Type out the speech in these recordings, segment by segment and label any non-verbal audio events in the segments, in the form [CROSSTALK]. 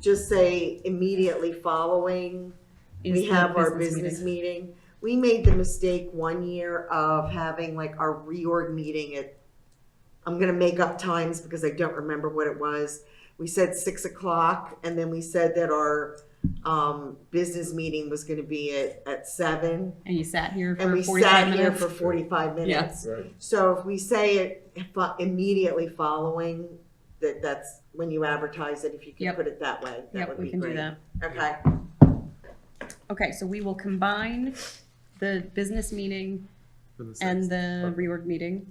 just say immediately following, Is we the have our business business meeting. We made the mistake one year of having like our reorg meeting at, I'm gonna make up times because I don't remember what it was. We said six o'clock and then we said that our, um, business meeting was gonna be at, at seven. And you sat here for And we 45 sat minutes. here for forty-five minutes. Right. So if we say it fo- immediately following, that that's when you advertise it, if you can Yep. put it that way, that Yep, would we be can do great. that. Okay, Okay, so we will combine the business meeting For the and sixth. the reorg meeting.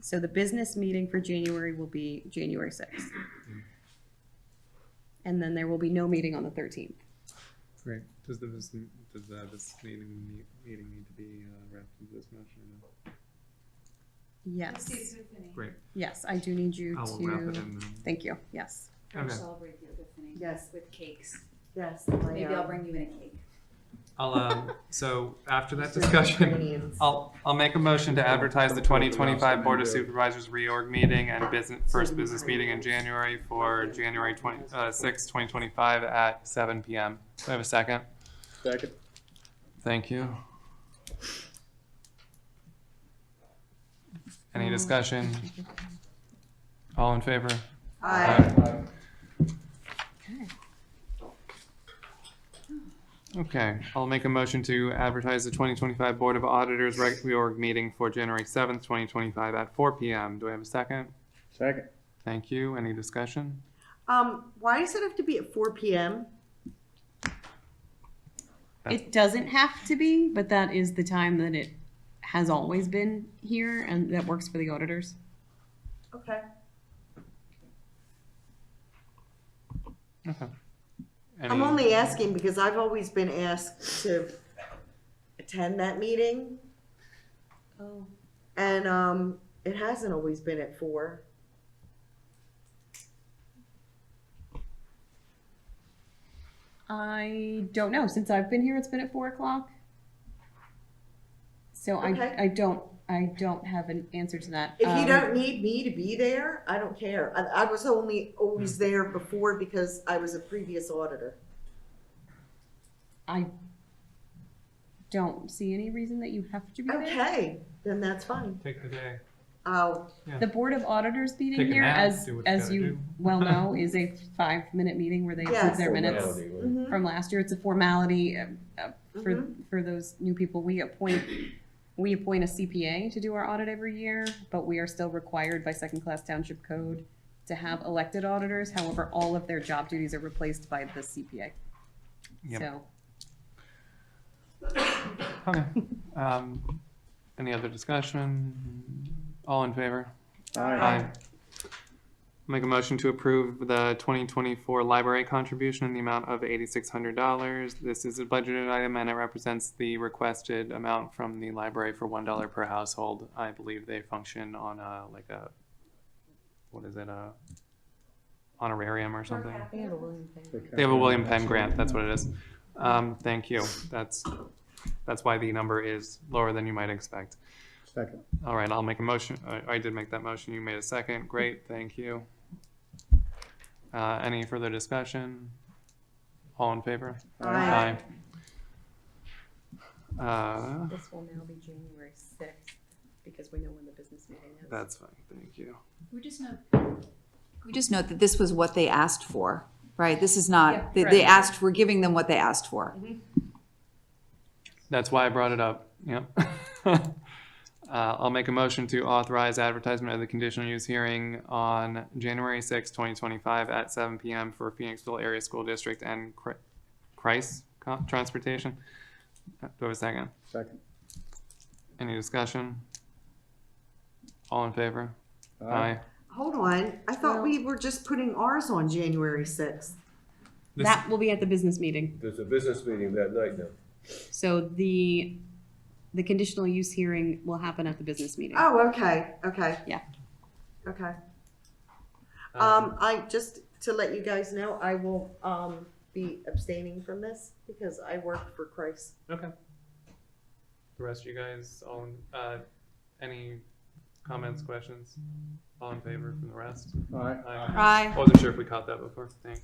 So the business meeting for January will be January sixth. And then there will be no meeting on the thirteenth. Great. Does the, vis- does the, this meeting, need- meeting need to be uh, wrapped into this motion or no? Yes, Great. yes, I do need you I will wrap it to, in thank you, yes. then. I'll Okay. celebrate the epiphany. Yes. With cakes. yes. Maybe I'll bring you in a cake. I'll, um, so after that discussion, [LAUGHS] I'll, I'll make a motion to advertise the twenty twenty-five Board of Supervisors reorg meeting and business, first business meeting in January for January twenty, uh, sixth, twenty twenty-five at seven PM. Do I have a second? Second. Thank you. Any discussion? All in favor? Aye. Okay. Okay, I'll make a motion to advertise the twenty twenty-five Board of Auditors reg- reorg meeting for January seventh, twenty twenty-five at four PM. Do I have a second? Second. Thank you. Any discussion? Um, why does it have to be at four PM? It doesn't have to be, but that is the time that it has always been here and that works for the auditors. Okay. Okay. I'm Any- only asking because I've always been asked to attend that meeting Oh. and, um, it hasn't always been at four. I don't know. Since I've been here, it's been at four o'clock. So Okay. I, I don't, I don't have an answer to that. If you Um, don't need me to be there, I don't care. I, I was only Hmm. always there before because I was a previous auditor. I don't see any reason that you have to be there. Okay, then that's fine. Take the day. Oh, The Board of Auditors meeting Take a here, nap, as, do what you as gotta you do. [LAUGHS] well know, is a five-minute meeting where they approve Yes. their minutes mhm. from last year. It's a formality uh, uh, for, Mhm. for those new people. We appoint, we appoint a CPA to do our audit every year, but we are still required by second-class township code to have elected auditors. However, all of their job duties are replaced by the CPA. Yep. So Okay. [LAUGHS] Um, any other discussion? All in favor? Aye. Make a motion to approve the twenty twenty-four library contribution in the amount of eighty-six hundred dollars. This is a budgeted item and it represents the requested amount from the library for one dollar per household. I believe they function on a, like a, what is it, a honorarium or something? They have a William Penn grant, that's what it is. Um, thank you. That's, that's why the number is lower than you might expect. Second. All right, I'll make a motion. I, I did make that motion. You made a second. Great, thank you. Uh, any further discussion? All in favor? Aye. Aye. Uh, this will now be January sixth, because we know when the business meeting is. that's fine, thank you. We just know We just note that this was what they asked for, right? This is not, they, Yeah, they right. Mm-hmm. asked, we're giving them what they asked for. That's why I brought it up, yep. [LAUGHS] Uh, I'll make a motion to authorize advertisement of the conditional use hearing on January sixth, twenty twenty-five at seven PM for Phoenixville Area School District and Cri- Christ Co- Transportation. Uh, Do I have a second? Second. Any discussion? All in favor? Aye. hold on. I thought Well- we were just putting ours on January sixth. This- That will be at the business meeting. There's a business meeting that night now. So the, the conditional use hearing will happen at the business meeting. Oh, okay, okay. Yeah. Okay. Um, I, just to let you guys know, I will, um, be abstaining from this because I work for Christ. Okay. The rest of you guys, all, in- uh, any comments, questions? All in favor from the rest? Aye. Aye. Aye. I wasn't sure if we caught that before, thanks.